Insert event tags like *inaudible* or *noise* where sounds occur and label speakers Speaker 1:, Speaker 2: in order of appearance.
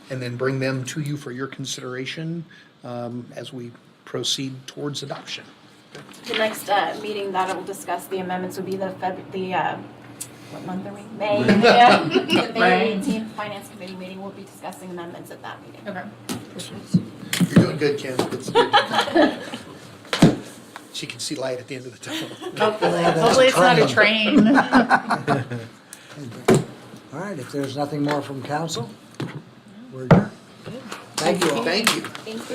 Speaker 1: and then bring them to you for your consideration um, as we proceed towards adoption.
Speaker 2: The next uh, meeting that it will discuss the amendments would be the Feb, the, uh, what month are we? May. Yeah. *laughs* The May
Speaker 3: Right.
Speaker 2: 18th Finance Committee meeting, we'll be discussing amendments at that meeting.
Speaker 3: *laughs* Okay.
Speaker 1: You're doing good, Ken. It's- She can see light at the end of the tunnel.
Speaker 3: Hopefully, hopefully it's not a train.
Speaker 4: All right, if there's nothing more from council, we're done. Thank you all.
Speaker 1: Thank you.
Speaker 2: Thank you.